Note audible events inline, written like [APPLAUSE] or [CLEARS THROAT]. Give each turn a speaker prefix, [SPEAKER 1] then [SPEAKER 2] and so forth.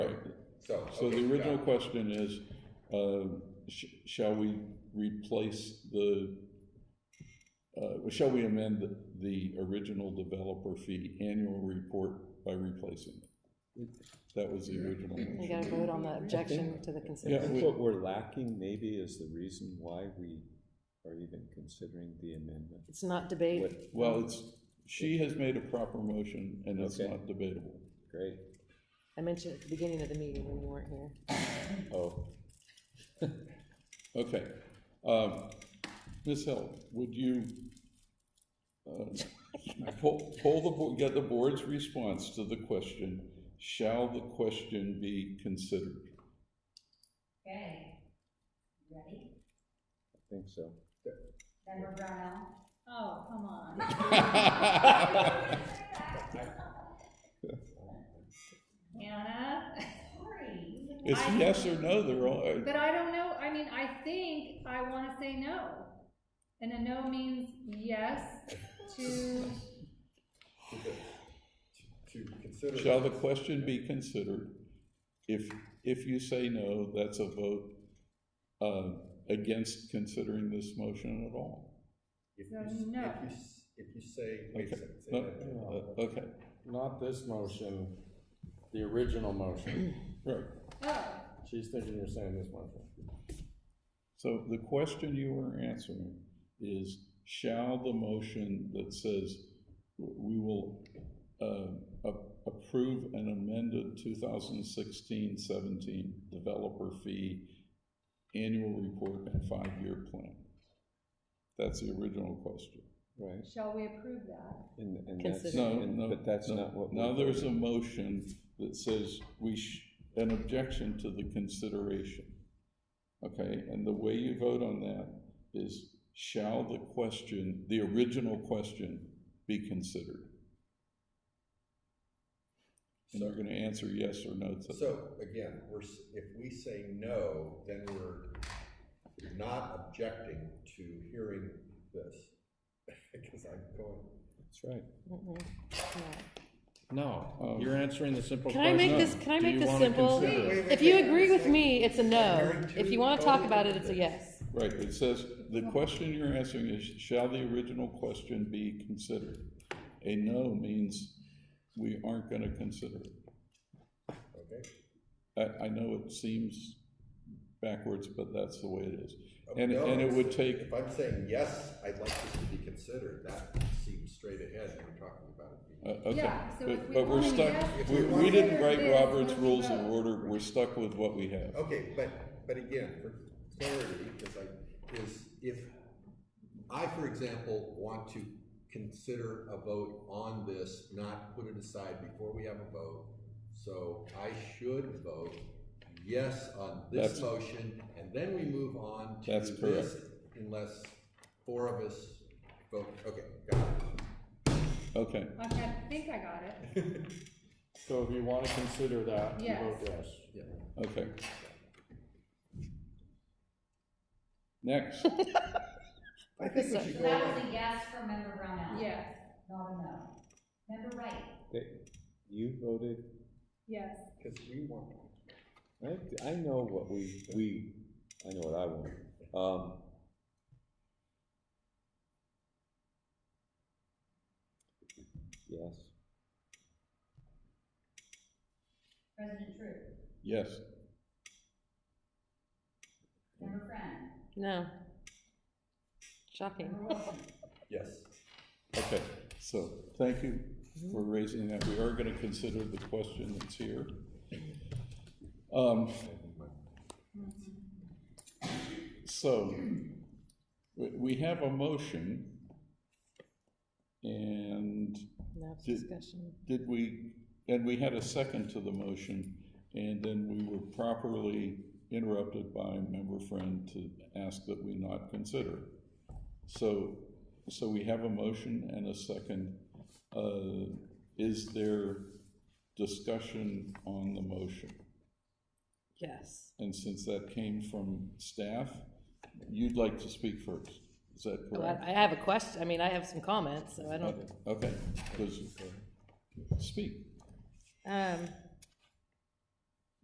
[SPEAKER 1] So.
[SPEAKER 2] So
[SPEAKER 1] okay,
[SPEAKER 2] the original
[SPEAKER 1] done.
[SPEAKER 2] question is, uh, sh- shall we replace the, uh, shall we amend the- the original developer fee annual report by replacing it? That was the original
[SPEAKER 3] We
[SPEAKER 2] motion.
[SPEAKER 3] gotta vote on the objection to the
[SPEAKER 4] I
[SPEAKER 2] Yeah,
[SPEAKER 3] consent.
[SPEAKER 4] think
[SPEAKER 2] we-
[SPEAKER 4] what we're lacking maybe is the reason why we are even considering the amendment.
[SPEAKER 3] It's not debate.
[SPEAKER 4] What-
[SPEAKER 2] Well, it's, she has made a proper motion, and it's
[SPEAKER 4] Okay.
[SPEAKER 2] not debatable.
[SPEAKER 4] Great,
[SPEAKER 3] I mentioned at the beginning of the meeting when you weren't here.
[SPEAKER 4] oh,
[SPEAKER 2] [LAUGHS] Okay. Um, Ms. Hill, would you uh, [LAUGHS] pull pull the, bo- get the board's response to the question, shall the question be considered?
[SPEAKER 5] Okay, ready?
[SPEAKER 4] I think so.
[SPEAKER 5] Member Brownell? Oh, come on. [LAUGHS] Hannah? Sorry.
[SPEAKER 2] It's
[SPEAKER 5] I-
[SPEAKER 2] yes or no, they're all, uh,
[SPEAKER 5] But I don't know, I mean, I think I wanna say no. And a no means yes to,
[SPEAKER 1] To consider.
[SPEAKER 2] shall the question be considered? If, if you say no, that's a vote uh, against considering this motion at all.
[SPEAKER 1] If
[SPEAKER 5] No,
[SPEAKER 1] you s-
[SPEAKER 5] no.
[SPEAKER 1] If you, s- if you say, wait a
[SPEAKER 2] Okay,
[SPEAKER 1] second, say
[SPEAKER 2] no, uh,
[SPEAKER 1] that.
[SPEAKER 2] Okay,
[SPEAKER 6] Not this motion, the original
[SPEAKER 3] [CLEARS THROAT]
[SPEAKER 6] motion.
[SPEAKER 2] right.
[SPEAKER 5] oh,
[SPEAKER 6] She's thinking you're saying this motion.
[SPEAKER 2] So the question you are answering is, shall the motion that says we will uh, a- approve an amended 2016-17 developer fee annual report and five-year plan? That's the original question.
[SPEAKER 4] Right,
[SPEAKER 5] shall we approve that?
[SPEAKER 4] and, and that's,
[SPEAKER 3] Consider.
[SPEAKER 2] No,
[SPEAKER 4] and-
[SPEAKER 2] no.
[SPEAKER 4] but that's
[SPEAKER 2] no.
[SPEAKER 4] not what.
[SPEAKER 2] Now
[SPEAKER 4] we're
[SPEAKER 2] there's a
[SPEAKER 4] voting.
[SPEAKER 2] motion that says we sh, an objection to the consideration. Okay, and the way you vote on that is shall the question, the original question be considered? And you're gonna answer yes or no to that.
[SPEAKER 1] So again, we're, s- if we say no, then we're not objecting to hearing this. [LAUGHS] Because I'm going,
[SPEAKER 4] That's right.
[SPEAKER 3] Mm-mm. No.
[SPEAKER 6] No,
[SPEAKER 2] Oh.
[SPEAKER 6] you're answering the simple
[SPEAKER 3] Can
[SPEAKER 6] question.
[SPEAKER 3] I make this, can I
[SPEAKER 6] Do
[SPEAKER 3] make
[SPEAKER 6] you
[SPEAKER 3] this
[SPEAKER 6] wanna
[SPEAKER 3] simple?
[SPEAKER 6] consider it?
[SPEAKER 3] If you agree with me, it's a no. If you wanna talk about it, it's a yes.
[SPEAKER 2] Right, it says, the question you're answering is shall the original question be considered? A no means we aren't gonna consider it.
[SPEAKER 1] okay?
[SPEAKER 2] I, I know it seems backwards, but that's the way it is.
[SPEAKER 1] Oh,
[SPEAKER 2] And,
[SPEAKER 1] no,
[SPEAKER 2] and it would take,
[SPEAKER 1] If I'm saying yes, I'd like this to be considered, that seems straight ahead when we're talking about it.
[SPEAKER 2] uh, okay,
[SPEAKER 5] Yeah, so if
[SPEAKER 2] but,
[SPEAKER 5] we
[SPEAKER 2] but we're
[SPEAKER 5] only
[SPEAKER 2] stuck,
[SPEAKER 5] have
[SPEAKER 2] we,
[SPEAKER 1] to
[SPEAKER 2] we didn't
[SPEAKER 5] consider
[SPEAKER 2] write
[SPEAKER 5] this
[SPEAKER 2] Robert's
[SPEAKER 5] when we
[SPEAKER 2] rules of
[SPEAKER 5] vote.
[SPEAKER 2] order, we're stuck with what we have.
[SPEAKER 1] Okay, but, but again, for clarity, because I, is if, I, for example, want to consider a vote on this, not put it aside before we have a vote, so I should vote yes on this
[SPEAKER 2] That's-
[SPEAKER 1] motion, and then we move on to
[SPEAKER 2] That's
[SPEAKER 1] this, unless four of us vote, okay, got it.
[SPEAKER 2] Okay,
[SPEAKER 5] Okay, I think I got it,
[SPEAKER 6] So if you wanna consider that, you
[SPEAKER 5] Yes.
[SPEAKER 6] vote yes.
[SPEAKER 2] okay.
[SPEAKER 5] [LAUGHS]
[SPEAKER 2] Next,
[SPEAKER 1] I think we should
[SPEAKER 5] So
[SPEAKER 1] go,
[SPEAKER 5] that
[SPEAKER 1] on.
[SPEAKER 5] was a yes for Member Brownell?
[SPEAKER 3] Yes.
[SPEAKER 5] Not a no. Member Wright?
[SPEAKER 4] They- You voted,
[SPEAKER 5] Yes.
[SPEAKER 1] because we want,
[SPEAKER 4] I, I know what we, we, I know what I want. Um, Yes,
[SPEAKER 5] President True?
[SPEAKER 2] yes,
[SPEAKER 5] Member Friend?
[SPEAKER 3] No. Shocking.
[SPEAKER 5] Member Wilson?
[SPEAKER 1] yes,
[SPEAKER 2] okay, so, thank you for raising that, we are gonna consider the question that's here. Um, So, we, we have a motion, and
[SPEAKER 3] Enough
[SPEAKER 2] Did-
[SPEAKER 3] discussion.
[SPEAKER 2] did we, and we had a second to the motion, and then we were properly interrupted by member friend to ask that we not consider. So, so we have a motion and a second. Uh, Is there discussion on the motion?
[SPEAKER 3] Yes.
[SPEAKER 2] And since that came from staff, you'd like to speak first, is that
[SPEAKER 3] Oh,
[SPEAKER 2] correct?
[SPEAKER 3] I I have a question, I mean, I have some comments, so I don't,
[SPEAKER 2] Okay, because, speak.
[SPEAKER 3] um,